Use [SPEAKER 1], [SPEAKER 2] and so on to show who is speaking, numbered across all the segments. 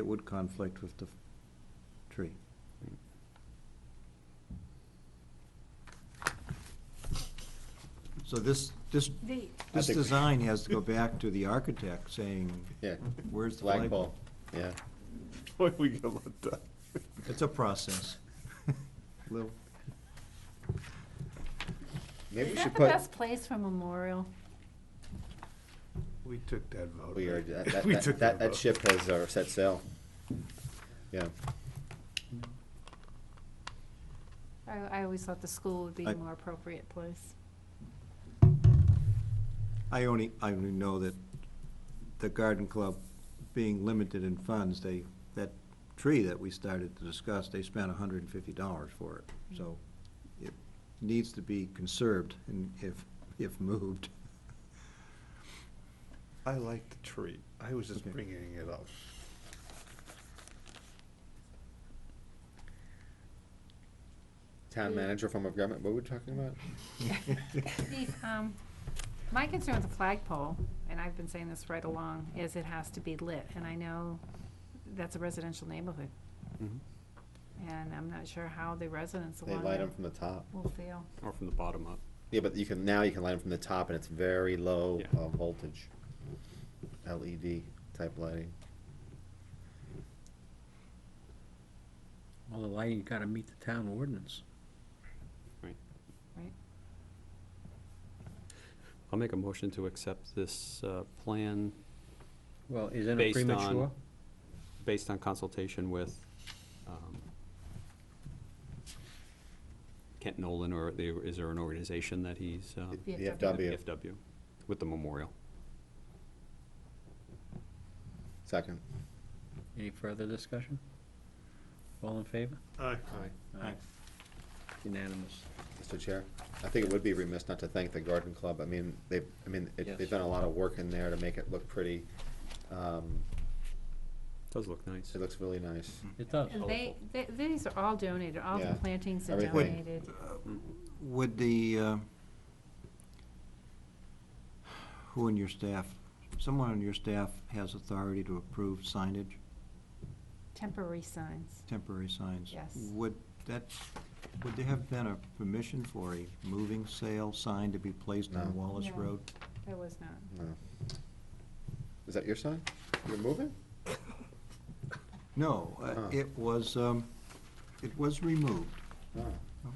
[SPEAKER 1] It would conflict with the tree. So this, this,
[SPEAKER 2] The,
[SPEAKER 1] this
[SPEAKER 3] think-
[SPEAKER 1] design has to go back to the architect saying,
[SPEAKER 3] Yeah,
[SPEAKER 1] where's the light bulb?
[SPEAKER 3] flagpole, yeah.
[SPEAKER 4] Boy, we got a lot done.
[SPEAKER 1] It's a process. Lil,
[SPEAKER 3] Maybe
[SPEAKER 2] is
[SPEAKER 3] we
[SPEAKER 2] that
[SPEAKER 3] should
[SPEAKER 2] the
[SPEAKER 3] put,
[SPEAKER 2] best place for memorial?
[SPEAKER 4] We took that vote.
[SPEAKER 3] we are, that,
[SPEAKER 4] right?
[SPEAKER 3] that-
[SPEAKER 4] We
[SPEAKER 3] that,
[SPEAKER 4] took
[SPEAKER 3] that, that
[SPEAKER 4] vote.
[SPEAKER 3] ship has uh, set sail. Yeah,
[SPEAKER 2] I, I always thought the school would be
[SPEAKER 1] I-
[SPEAKER 2] a more appropriate place.
[SPEAKER 1] I only, I only know that the garden club, being limited in funds, they, that tree that we started to discuss, they spent hundred and fifty dollars for it. So it needs to be conserved and if, if moved.
[SPEAKER 4] I like the tree. I was just
[SPEAKER 1] Okay.
[SPEAKER 4] bringing it up.
[SPEAKER 3] town manager form of government, what were we talking about?
[SPEAKER 2] The, um, My concern with the flagpole, and I've been saying this right along, is it has to be lit, and I know that's a residential neighborhood, and I'm not sure how the residents
[SPEAKER 3] Mm-hmm. They
[SPEAKER 2] along
[SPEAKER 3] light
[SPEAKER 2] there
[SPEAKER 3] them from the top.
[SPEAKER 2] will feel.
[SPEAKER 5] Or from the bottom up.
[SPEAKER 3] Yeah, but you can, now you can light them from the top and it's very low
[SPEAKER 5] Yeah.
[SPEAKER 3] uh, voltage. LED type lighting.
[SPEAKER 6] Well, the lighting's gotta meet the town ordinance.
[SPEAKER 5] I'll make a motion to accept this uh, plan
[SPEAKER 6] Well, isn't it
[SPEAKER 5] based on...
[SPEAKER 6] premature?
[SPEAKER 5] Based on consultation with um, Kent Nolan, or the- is there an organization that he's... um,
[SPEAKER 3] The
[SPEAKER 2] VFW.
[SPEAKER 3] VFW,
[SPEAKER 5] VFW, with the memorial.
[SPEAKER 3] second.
[SPEAKER 6] Any further discussion? All in favor?
[SPEAKER 4] Aye.
[SPEAKER 1] Aye.
[SPEAKER 6] Unanimous.
[SPEAKER 3] Mr. Chair, I think it would be remiss not to thank the garden club. I mean, they've, I mean, it-
[SPEAKER 6] Yes.
[SPEAKER 3] they've done a lot of work in there to make it look pretty. Um,
[SPEAKER 5] Does look nice.
[SPEAKER 3] It looks really nice.
[SPEAKER 6] It does.
[SPEAKER 2] And they, they, these are all donated, all the
[SPEAKER 3] Yeah.
[SPEAKER 2] plantings are
[SPEAKER 3] Everything. Wait.
[SPEAKER 2] donated.
[SPEAKER 1] Would the, uh, who in your staff, someone on your staff has authority to approve signage,
[SPEAKER 2] Temporary signs.
[SPEAKER 1] temporary signs?
[SPEAKER 2] Yes.
[SPEAKER 1] Would that, would there have been a permission for a moving sale sign to be placed
[SPEAKER 3] No.
[SPEAKER 1] on Wallace
[SPEAKER 2] No.
[SPEAKER 1] Road?
[SPEAKER 2] There was not.
[SPEAKER 3] No. Is that your sign? You're moving?
[SPEAKER 1] No, uh,
[SPEAKER 3] Huh.
[SPEAKER 1] it was, um, it was removed.
[SPEAKER 3] Oh,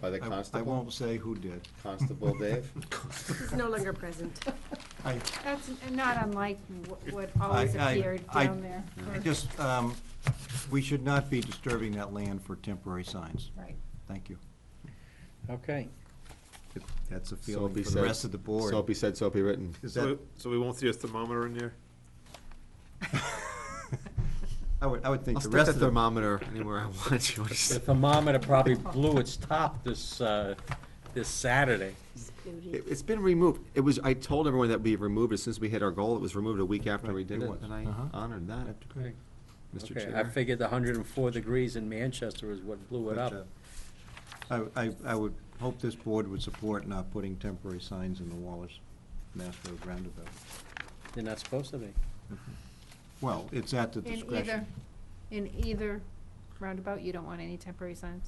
[SPEAKER 3] By the
[SPEAKER 1] I-
[SPEAKER 3] constable?
[SPEAKER 1] I won't say who did.
[SPEAKER 3] Constable Dave? Mm.
[SPEAKER 7] He's no longer present.
[SPEAKER 1] I,
[SPEAKER 2] That's not unlike wh- what
[SPEAKER 1] I-
[SPEAKER 2] always
[SPEAKER 1] I-
[SPEAKER 2] appeared
[SPEAKER 1] I-
[SPEAKER 2] down there.
[SPEAKER 1] I just, um, we should not be disturbing that land for temporary signs.
[SPEAKER 2] Right.
[SPEAKER 1] Thank you.
[SPEAKER 6] Okay.
[SPEAKER 1] If That's a feeling for the rest of the board.
[SPEAKER 3] So be said, so be written.
[SPEAKER 1] Is
[SPEAKER 4] So,
[SPEAKER 1] that,
[SPEAKER 4] we- so we won't see a thermometer in there?
[SPEAKER 1] I would, I would think
[SPEAKER 3] I'll
[SPEAKER 1] the
[SPEAKER 3] stick
[SPEAKER 1] rest
[SPEAKER 3] the
[SPEAKER 1] of the,
[SPEAKER 3] thermometer anywhere I want you
[SPEAKER 6] The thermometer probably blew its top this, uh, this Saturday.
[SPEAKER 3] It, it's been removed. It was, I told everyone that we removed it since we hit our goal. It was removed a week after
[SPEAKER 1] Right,
[SPEAKER 3] we
[SPEAKER 1] it
[SPEAKER 3] did it,
[SPEAKER 1] was.
[SPEAKER 3] and I
[SPEAKER 1] Uh-huh.
[SPEAKER 3] honored that, Mr.
[SPEAKER 6] Okay, I
[SPEAKER 3] Chair.
[SPEAKER 6] figured the hundred and four degrees in Manchester is what blew it
[SPEAKER 1] but, uh,
[SPEAKER 6] up.
[SPEAKER 1] I, I, I would hope this board would support not putting temporary signs in the Wallace Mass Road roundabout.
[SPEAKER 6] They're not supposed to be.
[SPEAKER 1] Well, it's at the
[SPEAKER 2] In either,
[SPEAKER 1] discretion.
[SPEAKER 2] in either roundabout, you don't want any temporary signs?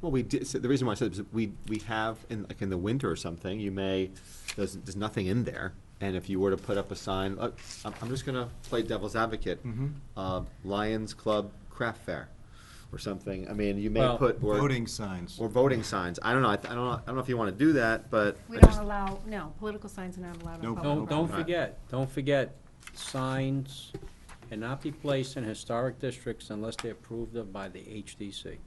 [SPEAKER 3] Well, we did, so the reason why I said is we, we have, in, like, in the winter or something, you may, there's, there's nothing in there. And if you were to put up a sign, uh, I'm, I'm just gonna play devil's advocate.
[SPEAKER 1] Mhm.
[SPEAKER 3] Uh, Lions Club Craft Fair or something. I mean, you may
[SPEAKER 6] Well-
[SPEAKER 3] put. or-
[SPEAKER 1] Voting signs.
[SPEAKER 3] Or voting signs. I don't know. I, th- I don't know. I don't know if you want to do that, but
[SPEAKER 2] We
[SPEAKER 3] I
[SPEAKER 2] don't
[SPEAKER 3] just-
[SPEAKER 2] allow, no, political signs are not allowed
[SPEAKER 1] No,
[SPEAKER 2] on public
[SPEAKER 1] no,
[SPEAKER 6] Don't, don't
[SPEAKER 2] property.
[SPEAKER 3] Right.
[SPEAKER 6] forget, don't forget, signs cannot be placed in historic districts unless they're approved of by the HDC.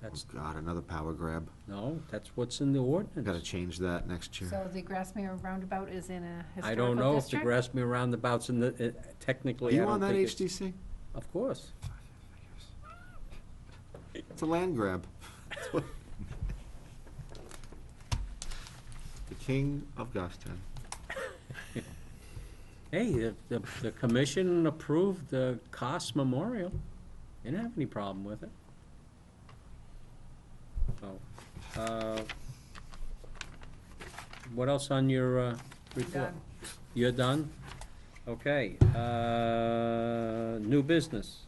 [SPEAKER 6] That's,
[SPEAKER 3] Oh, God, another power grab.
[SPEAKER 6] no, that's what's in the ordinance.
[SPEAKER 3] Got to change that next year.
[SPEAKER 2] So the Grassmere roundabout is in a historical
[SPEAKER 6] I
[SPEAKER 2] district?
[SPEAKER 6] don't know if the Grassmere roundabout's in the, uh,
[SPEAKER 3] Are
[SPEAKER 6] technically, I
[SPEAKER 3] you
[SPEAKER 6] don't
[SPEAKER 3] on that
[SPEAKER 6] think it's.
[SPEAKER 3] HDC?
[SPEAKER 6] Of course.
[SPEAKER 3] It's a land grab. the king of Goffstown.
[SPEAKER 6] Hey, the, the, the commission approved the Cost Memorial. They Didn't have any problem with it. So, uh, what else on your, uh, report?
[SPEAKER 2] Done.
[SPEAKER 6] You're done? Okay, uh, new business.